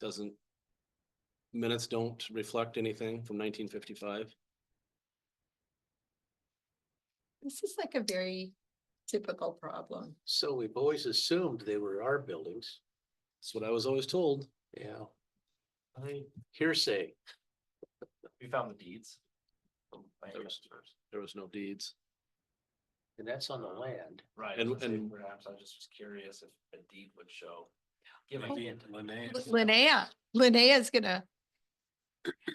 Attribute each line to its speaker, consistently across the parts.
Speaker 1: doesn't. Minutes don't reflect anything from nineteen fifty-five.
Speaker 2: This is like a very typical problem.
Speaker 3: So we've always assumed they were our buildings,
Speaker 1: That's what I was always told.
Speaker 3: yeah,
Speaker 4: I think
Speaker 3: hearsay,
Speaker 4: we found the deeds. from land
Speaker 1: There was-
Speaker 4: transfers.
Speaker 1: There was no deeds.
Speaker 3: and that's on the land.
Speaker 4: Right,
Speaker 1: And-
Speaker 4: I was gonna say,
Speaker 1: and-
Speaker 4: perhaps I just was curious if a deed would show. Give a hint.
Speaker 2: Linnea, Linnea's gonna,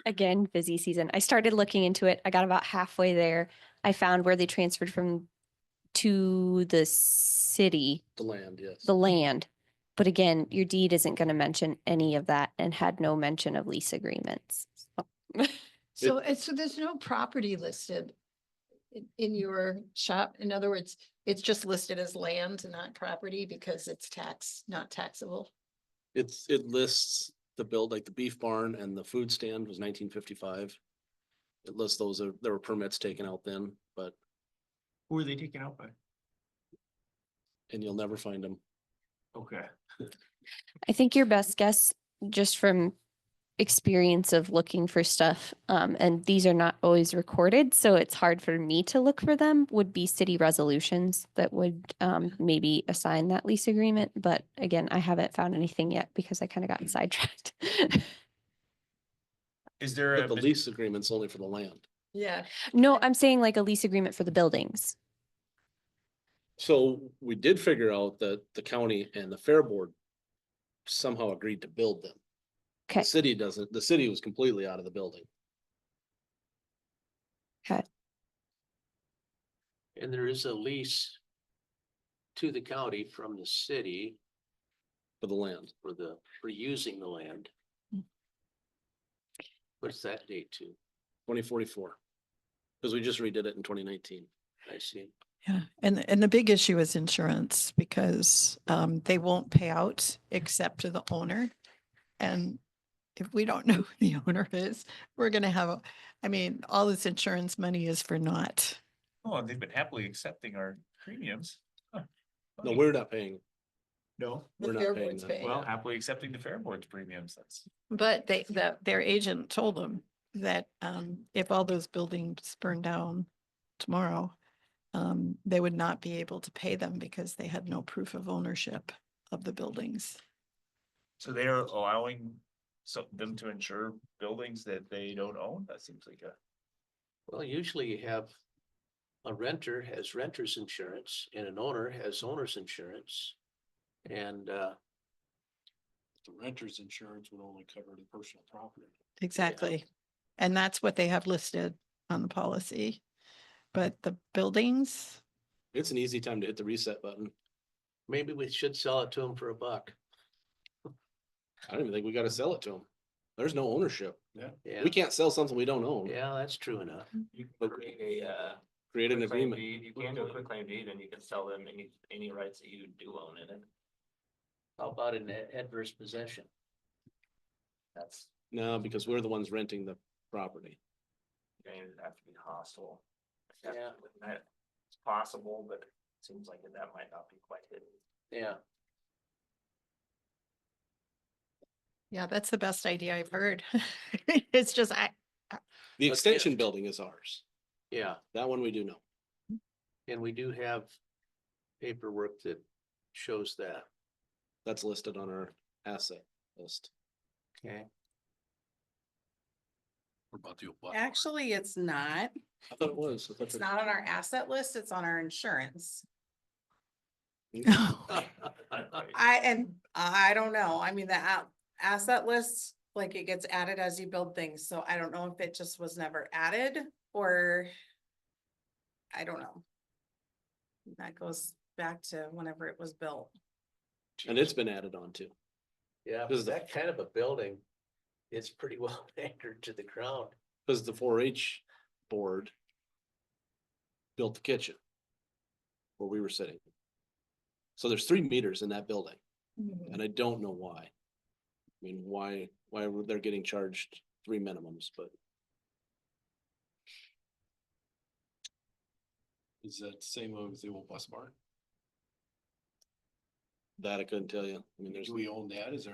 Speaker 5: Again, busy season. I started looking into it. I got about halfway there. I found where they transferred from to the city,
Speaker 1: The land, yes.
Speaker 5: the land. But again, your deed isn't going to mention any of that and had no mention of lease agreements. So,
Speaker 2: so, and so there's no property listed in, in your shop. In other words, it's just listed as land, not property, because it's tax, not taxable.
Speaker 1: It's, it lists the build, like the beef barn and the food stand was nineteen fifty-five. It lists those, uh, there were permits taken out then, but,
Speaker 4: Who are they taken out by?
Speaker 1: and you'll never find them.
Speaker 4: Okay.
Speaker 5: I think your best guess, just from experience of looking for stuff, um, and these are not always recorded, so it's hard for me to look for them, would be city resolutions that would um, maybe assign that lease agreement. But again, I haven't found anything yet because I kind of got sidetracked.
Speaker 6: Is there
Speaker 1: But
Speaker 6: a,
Speaker 1: the
Speaker 6: pot-
Speaker 1: lease agreement's only for the land.
Speaker 2: Yeah.
Speaker 5: No, I'm saying like a lease agreement for the buildings.
Speaker 1: So we did figure out that the county and the fair board somehow agreed to build them. The
Speaker 5: Okay.
Speaker 1: City doesn't, the city was completely out of the building.
Speaker 3: And there is a lease to the county from the city
Speaker 1: for the land.
Speaker 3: for the, for using the land. What's that date to?
Speaker 1: twenty forty-four. Because we just redid it in twenty nineteen.
Speaker 3: I see.
Speaker 7: Yeah, and, and the big issue is insurance because um, they won't pay out except to the owner. And if we don't know who the owner is, we're gonna have, a- I mean, all this insurance money is for naught.
Speaker 6: oh, they've been happily accepting our premiums. Huh,
Speaker 1: No,
Speaker 6: funny.
Speaker 1: we're not paying.
Speaker 6: No,
Speaker 2: the
Speaker 1: We're not
Speaker 2: Fair
Speaker 1: paying
Speaker 2: Board's
Speaker 1: that.
Speaker 2: paying
Speaker 6: well,
Speaker 2: it.
Speaker 6: happily accepting the Fair Board's premiums, that's.
Speaker 7: But they, the, their agent told them that um, if all those buildings burn down tomorrow, um, they would not be able to pay them because they had no proof of ownership of the buildings.
Speaker 6: So they are allowing some, them to insure buildings that they don't own? That seems like a.
Speaker 3: Well, usually you have a renter has renter's insurance and an owner has owner's insurance. And, uh,
Speaker 1: The renter's insurance would only cover the personal property.
Speaker 7: Exactly. And that's what they have listed on the policy. But the buildings,
Speaker 1: It's an easy time to hit the reset button.
Speaker 3: maybe we should sell it to them for a buck.
Speaker 1: I don't even think we gotta sell it to them. There's no ownership.
Speaker 3: Yeah,
Speaker 1: We can't sell something we don't own.
Speaker 3: yeah, that's true enough.
Speaker 4: You can
Speaker 1: But-
Speaker 4: create a, uh.
Speaker 1: Create an
Speaker 4: quitclaim
Speaker 1: agreement.
Speaker 4: deed. You can do a quick claim deed and you can sell them any, any rights that you do own in it.
Speaker 3: How about an a- adverse possession?
Speaker 4: That's,
Speaker 1: No, because we're the ones renting the property.
Speaker 4: I mean, it'd have to be hostile.
Speaker 3: Yeah.
Speaker 4: It's possible, but it seems like that might not be quite hidden.
Speaker 3: Yeah,
Speaker 7: yeah, that's the best idea I've heard. It's just, I,
Speaker 1: The
Speaker 3: Let's
Speaker 1: extension
Speaker 3: gift.
Speaker 1: building is ours.
Speaker 3: yeah.
Speaker 1: That one we do know.
Speaker 3: And we do have paperwork that shows that.
Speaker 1: That's listed on our asset list.
Speaker 3: Okay.
Speaker 8: Actually, it's not.
Speaker 1: I thought it was. I thought
Speaker 8: It's
Speaker 1: that-
Speaker 8: not on our asset list. It's on our insurance. I, and I don't know. I mean, the a- asset list, like it gets added as you build things. So I don't know if it just was never added or I don't know. That goes back to whenever it was built.
Speaker 1: And it's been added on to.
Speaker 3: Yeah,
Speaker 1: This is the-
Speaker 3: that kind of a building, it's pretty well anchored to the ground.
Speaker 1: Cause the four H board. Built the kitchen. Where we were sitting. So there's three meters in that building and I don't know why. I mean, why, why were they getting charged three minimums, but. Is that same as the old bus barn? That I couldn't tell you. I mean, there's.
Speaker 3: own that? Is there